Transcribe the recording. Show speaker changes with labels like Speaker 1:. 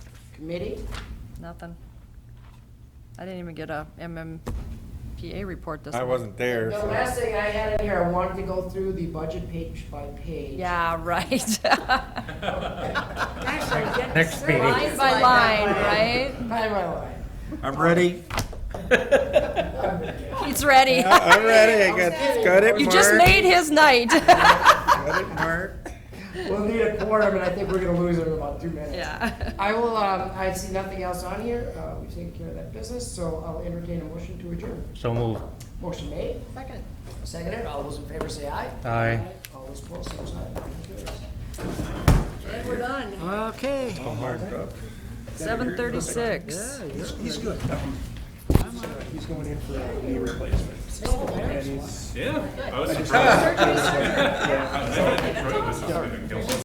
Speaker 1: Committee?
Speaker 2: Nothing. I didn't even get a MMPA report this
Speaker 3: I
Speaker 2: month.
Speaker 3: wasn't
Speaker 1: The
Speaker 3: there. so-
Speaker 1: last thing I had in here, I wanted to go through the budget page by page.
Speaker 2: Yeah, right.
Speaker 1: Gosh, I'm getting
Speaker 3: Next
Speaker 1: sick.
Speaker 3: meeting.
Speaker 2: Line by line, right?
Speaker 1: Line by line.
Speaker 3: I'm ready.
Speaker 2: He's ready.
Speaker 3: I- I'm ready. I
Speaker 1: Okay.
Speaker 3: got, got it
Speaker 2: You just
Speaker 3: marked.
Speaker 2: made his night.
Speaker 3: Got it marked.
Speaker 1: We'll need a quorum, and I think we're gonna lose it in about two minutes.
Speaker 2: Yeah.
Speaker 1: I will, um, I see nothing else on here, uh, we've taken care of that business, so I'll entertain a motion to adjourn.
Speaker 4: So move.
Speaker 1: Motion made. Second. Seconded, all those in favor say aye.
Speaker 4: Aye.
Speaker 1: All those opposed, same sign, motion carries.
Speaker 2: And we're done.
Speaker 5: Okay.
Speaker 3: All marked up.
Speaker 2: Seven thirty-six.
Speaker 5: He's good.
Speaker 6: He's going in for a knee replacement. And he's-
Speaker 7: Yeah. I was surprised. I I enjoyed this. It's been a guilt.